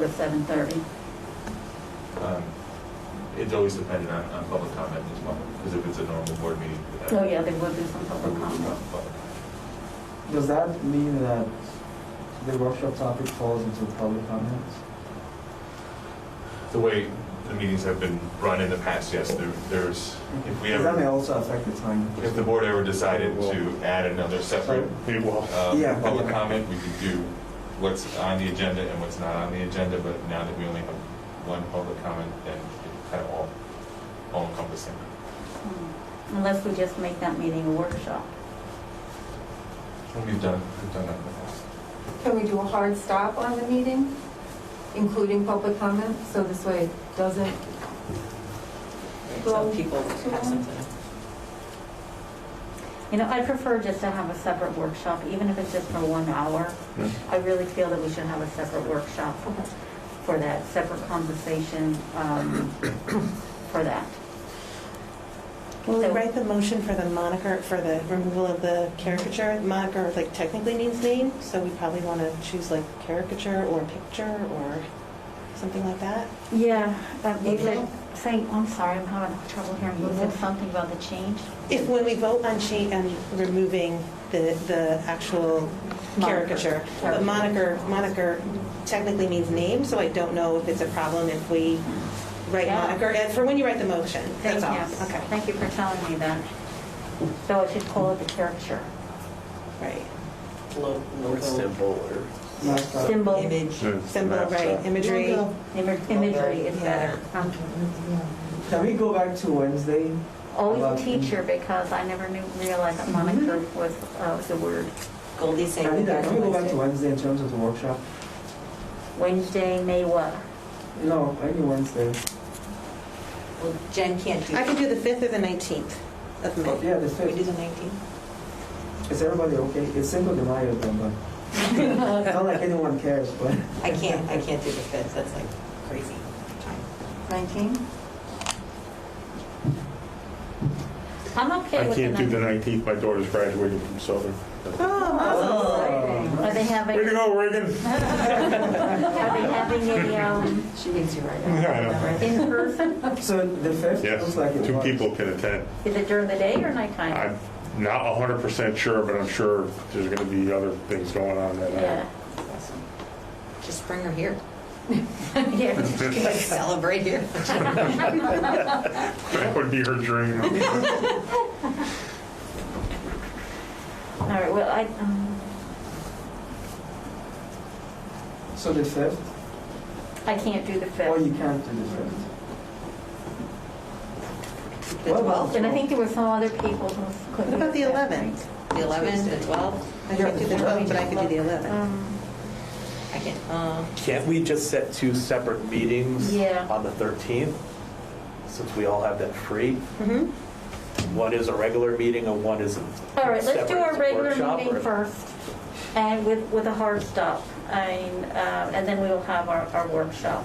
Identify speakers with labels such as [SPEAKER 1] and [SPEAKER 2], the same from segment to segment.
[SPEAKER 1] to seven thirty.
[SPEAKER 2] Um, It's always dependent on, on public comment as well, because if it's a normal board meeting. we have-
[SPEAKER 1] Oh, yeah, there will be some
[SPEAKER 2] we
[SPEAKER 1] public
[SPEAKER 2] would
[SPEAKER 1] comment.
[SPEAKER 2] have public comment.
[SPEAKER 3] Does that mean that the workshop topic falls into public comments?
[SPEAKER 2] The way the meetings have been run in the past, yes, there, there's, if we
[SPEAKER 3] Because That may
[SPEAKER 2] ever,
[SPEAKER 3] also affect the time.
[SPEAKER 2] if the board ever decided to add another separate
[SPEAKER 4] It will.
[SPEAKER 2] um,
[SPEAKER 3] Yeah.
[SPEAKER 2] public comment, we could do what's on the agenda and what's not on the agenda, but now that we only have one public comment, then it's kind of all, all encompassing.
[SPEAKER 1] Unless we just make that meeting a workshop.
[SPEAKER 2] And We've done, we've done that in the past.
[SPEAKER 5] Can we do a hard stop on the meeting, including public comment, so this way it doesn't?
[SPEAKER 6] So people have something.
[SPEAKER 1] You know, I prefer just to have a separate workshop, even if it's just for one hour.
[SPEAKER 2] Yeah.
[SPEAKER 1] I really feel that we should have a separate workshop for that, separate conversation um, for that.
[SPEAKER 7] Will we
[SPEAKER 1] So-
[SPEAKER 7] write the motion for the moniker, for the removal of the caricature? Moniker, like technically means name, so we probably want to choose like caricature or picture or something like that.
[SPEAKER 1] Yeah, uh, you
[SPEAKER 7] Mhm.
[SPEAKER 1] said, say, I'm sorry, I'm having trouble hearing, you said something about the change?
[SPEAKER 7] If, when we vote on change, on removing the, the actual
[SPEAKER 1] Moniker.
[SPEAKER 7] caricature.
[SPEAKER 1] Caricature.
[SPEAKER 7] But moniker, moniker technically means name, so I don't know if it's a problem if we write
[SPEAKER 1] Yeah.
[SPEAKER 7] moniker, and for when you write the motion, that's
[SPEAKER 1] Thank
[SPEAKER 7] all.
[SPEAKER 1] you.
[SPEAKER 7] Okay,
[SPEAKER 1] Thank you for telling me that. So I should call it the caricature,
[SPEAKER 7] right.
[SPEAKER 6] Lo- Logo,
[SPEAKER 4] Symbol
[SPEAKER 3] Last time.
[SPEAKER 1] symbol,
[SPEAKER 6] image.
[SPEAKER 4] or.
[SPEAKER 7] Symbol, right, imagery.
[SPEAKER 1] imagery imagery is better. Um,
[SPEAKER 3] Can we go back to Wednesday?
[SPEAKER 1] Always
[SPEAKER 3] About-
[SPEAKER 1] a teacher, because I never knew, realized that moniker
[SPEAKER 7] Mm-hmm.
[SPEAKER 1] was uh, the word.
[SPEAKER 6] Goldie saying.
[SPEAKER 3] Can we
[SPEAKER 6] we'll
[SPEAKER 3] can we
[SPEAKER 6] do
[SPEAKER 3] go
[SPEAKER 6] it
[SPEAKER 3] back to
[SPEAKER 6] Wednesday.
[SPEAKER 3] Wednesday in terms of the workshop?
[SPEAKER 1] Wednesday, May what?
[SPEAKER 3] No, any Wednesday.
[SPEAKER 6] Well, Jen can't do.
[SPEAKER 7] I could do the 5th or the 19th of May.
[SPEAKER 3] Oh, Yeah, the
[SPEAKER 6] Can we do
[SPEAKER 3] fifth.
[SPEAKER 6] the 19th?
[SPEAKER 3] Is everybody okay? It's Cinco de Mayo then, but not like anyone cares, but
[SPEAKER 6] I can't, I can't do the 5th, that's like crazy time.
[SPEAKER 1] Nineteen? I'm okay
[SPEAKER 4] I
[SPEAKER 1] with the
[SPEAKER 4] can't do the
[SPEAKER 1] nineteen.
[SPEAKER 4] 19th, my daughter's graduating from Southern.
[SPEAKER 1] Are they having,
[SPEAKER 4] Way to
[SPEAKER 1] are
[SPEAKER 4] go, Reagan!
[SPEAKER 1] they having a, um,
[SPEAKER 6] She needs you right
[SPEAKER 4] Yeah, I know.
[SPEAKER 6] now.
[SPEAKER 1] in person?
[SPEAKER 3] so the fifth
[SPEAKER 4] Yes,
[SPEAKER 3] looks like it
[SPEAKER 4] two
[SPEAKER 3] works.
[SPEAKER 4] people can attend.
[SPEAKER 1] Is it during the day or nighttime?
[SPEAKER 4] I'm not 100% sure, but I'm sure there's going to be other things going on that uh, night.
[SPEAKER 1] Yeah,
[SPEAKER 6] Just bring her here.
[SPEAKER 1] yeah.
[SPEAKER 6] Celebrate here.
[SPEAKER 4] That would be her dream.
[SPEAKER 1] All right, well, I, um,
[SPEAKER 3] So the fifth,
[SPEAKER 1] I can't do the
[SPEAKER 3] or
[SPEAKER 1] fifth.
[SPEAKER 3] you can't do the fifth.
[SPEAKER 6] The 12th,
[SPEAKER 1] And I think there were some other people who couldn't.
[SPEAKER 7] What about the
[SPEAKER 1] do the fifth,
[SPEAKER 7] 11th?
[SPEAKER 6] the 11th, the 12th.
[SPEAKER 7] I can't do the 12th, but I could do the 11th.
[SPEAKER 1] Um,
[SPEAKER 6] I can't, um,
[SPEAKER 8] Can't we just set two separate meetings?
[SPEAKER 1] Yeah.
[SPEAKER 8] On the 13th, since we all have that free?
[SPEAKER 6] mm-hmm,
[SPEAKER 7] Mhm.
[SPEAKER 8] One is a regular meeting and one is a
[SPEAKER 1] All right, let's do our
[SPEAKER 8] separate
[SPEAKER 1] regular
[SPEAKER 8] workshop or-
[SPEAKER 1] meeting first, and with, with a hard stop, and, uh, and then we'll have our, our workshop.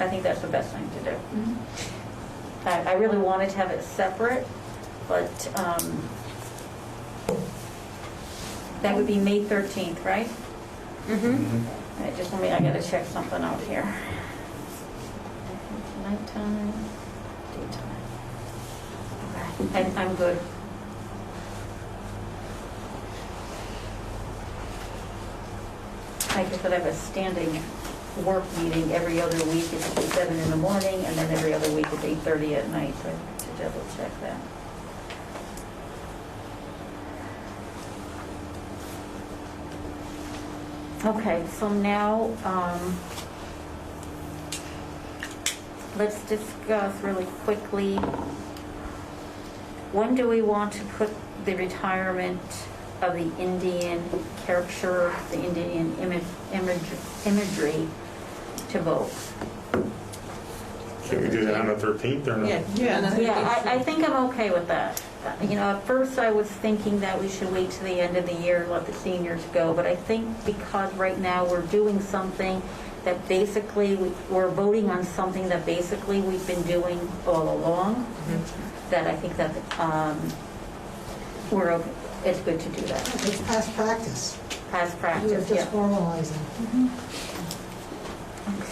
[SPEAKER 1] I think that's the best thing to do.
[SPEAKER 7] Mm-hmm.
[SPEAKER 1] I, I really wanted to have it separate, but, um, that would be May 13th, right?
[SPEAKER 6] mm-hmm.
[SPEAKER 1] All right, just let me, I gotta check something out here. Nighttime, daytime. Okay, I- I'm good. I guess that I have a standing work meeting every other week at seven in the morning, and then every other week at 8:30 at night, so I have to double check that. Okay, so now, um, let's discuss really quickly, when do we want to put the retirement of the Indian caricature, the Indian image, imagery to vote?
[SPEAKER 4] Can we do that on the 13th or not?
[SPEAKER 7] Yeah.
[SPEAKER 1] Yeah, I, I think I'm okay with that. Uh, You know, at first I was thinking that we should wait to the end of the year, let the seniors go, but I think because right now we're doing something that basically, we- we're voting on something that basically we've been doing all along, that I think that, um, we're, okay- it's good to do that,
[SPEAKER 9] It's past practice.
[SPEAKER 1] past
[SPEAKER 9] We're
[SPEAKER 1] practice, yeah.
[SPEAKER 9] just formalizing.